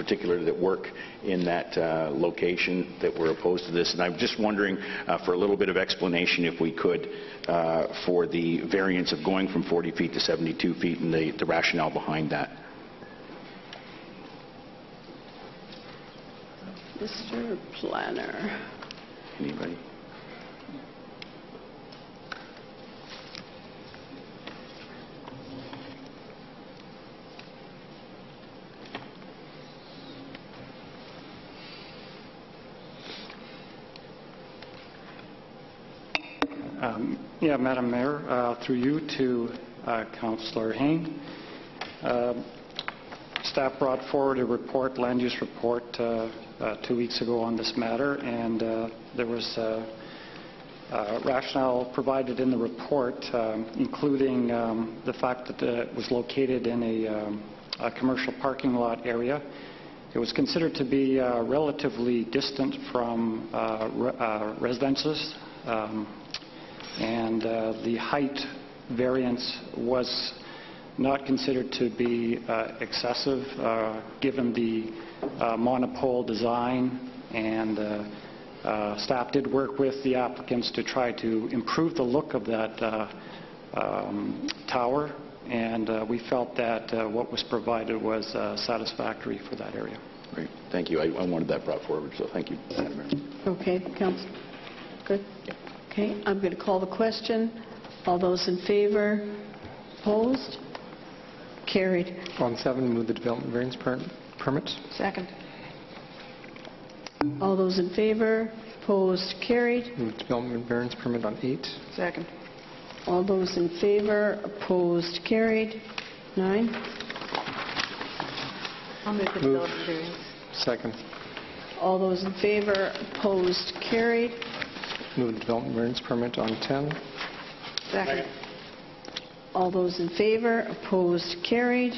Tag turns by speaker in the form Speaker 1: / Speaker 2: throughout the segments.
Speaker 1: particular that work in that uh, location that were opposed to this. And I'm just wondering uh, for a little bit of explanation, if we could, uh, for the variance of going from 40 feet to 72 feet and the the rationale behind that.
Speaker 2: Mr. Planner.
Speaker 1: Anybody?
Speaker 3: Um, Yeah, Madam Mayor, uh, through you to uh, Councillor Hain. Um, Staff brought forward a report, land use report, uh, uh, two weeks ago on this matter, and uh, there was uh, uh, rationale provided in the report, um, including um, the fact that uh, it was located in a um, a commercial parking lot area. It was considered to be uh, relatively distant from uh, re- uh, residences, um, and uh, the height variance was not considered to be uh, excessive, uh, given the uh, monopole design, and uh, uh, staff did work with the applicants to try to improve the look of that uh, um, tower, and uh, we felt that uh, what was provided was uh, satisfactory for that area.
Speaker 1: Great, thank you. I I wanted that brought forward, so thank you, Madam Mayor.
Speaker 2: Okay, Council, good? Okay, I'm going to call the question. All those in favor? Opposed? Carried.
Speaker 4: On seven, move the development variance per- permit.
Speaker 5: Second.
Speaker 2: All those in favor? Opposed? Carried.
Speaker 4: Move development variance permit on eight.
Speaker 5: Second.
Speaker 2: All those in favor? Opposed? Carried. Nine.
Speaker 5: I'll move the
Speaker 4: Move.
Speaker 5: development variance.
Speaker 4: Second,
Speaker 2: All those in favor? Opposed? Carried.
Speaker 4: move the development variance permit on 10.
Speaker 5: Second.
Speaker 2: All those in favor? Opposed? Carried.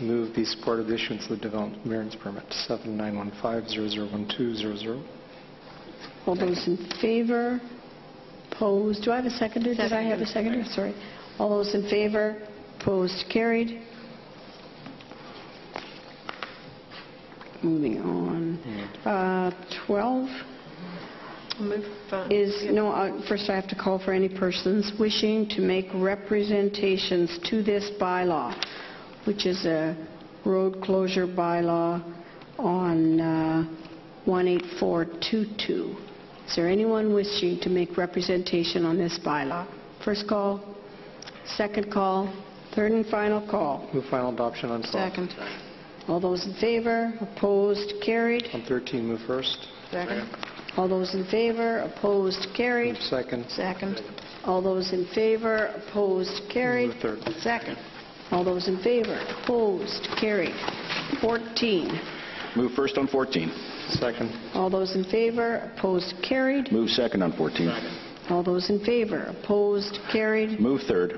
Speaker 4: Move the support of the issuance of the development variance permit, 7915001200.
Speaker 2: All those in favor? Opposed? Do I have a seconder? Did I have a seconder? Sorry. All those in favor? Opposed? Carried. Moving on. Uh, 12
Speaker 5: I'll move. uh,
Speaker 2: is, no, uh, first I have to call for any persons wishing to make representations to this bylaw, which is a road closure bylaw on uh, 18422. Is there anyone wishing to make representation on this bylaw? First call, second call, third and final call.
Speaker 4: Move final adoption on 12.
Speaker 5: Second.
Speaker 2: All those in favor, opposed, carried.
Speaker 4: On 13, move first.
Speaker 5: Second.
Speaker 2: All those in favor, opposed, carried.
Speaker 4: Move second.
Speaker 5: Second.
Speaker 2: All those in favor, opposed, carried.
Speaker 4: Move third.
Speaker 2: Second. All those in favor, opposed, carried. 14.
Speaker 1: Move first on 14.
Speaker 4: Second,
Speaker 2: All those in favor, opposed, carried.
Speaker 1: Move second on 14.
Speaker 2: All those in favor, opposed, carried.
Speaker 1: Move third.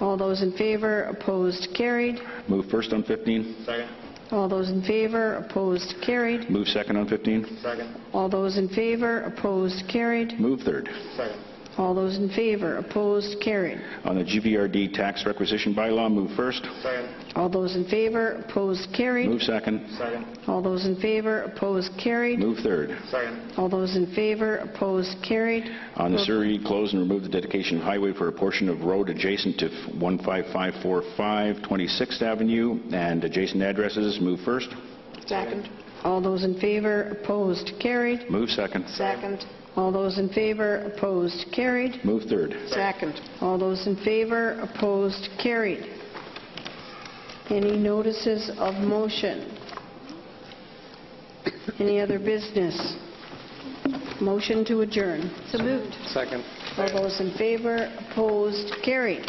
Speaker 2: All those in favor, opposed, carried.
Speaker 1: Move first on 15.
Speaker 2: All those in favor, opposed, carried.
Speaker 1: Move second on 15.
Speaker 2: All those in favor, opposed, carried.
Speaker 1: Move third.
Speaker 2: All those in favor, opposed, carried.
Speaker 1: On the GVRD tax requisition bylaw, move first.
Speaker 2: All those in favor, opposed,
Speaker 1: Move
Speaker 2: carried.
Speaker 1: second.
Speaker 2: All those in favor, opposed, carried.
Speaker 1: Move third.
Speaker 2: All those in favor, opposed, carried.
Speaker 1: On the Surrey, close and remove the dedication of highway for a portion of road adjacent to 15545 26th Avenue and adjacent addresses. Move first.
Speaker 5: Second.
Speaker 2: All those in favor, opposed, carried.
Speaker 1: Move second.
Speaker 5: Second.
Speaker 2: All those in favor, opposed, carried.
Speaker 1: Move third.
Speaker 5: Second.
Speaker 2: All those in favor, opposed, carried. Any notices of motion? Any other business? Motion to adjourn.
Speaker 5: So moved.
Speaker 4: second.
Speaker 2: All those in favor, opposed, carried.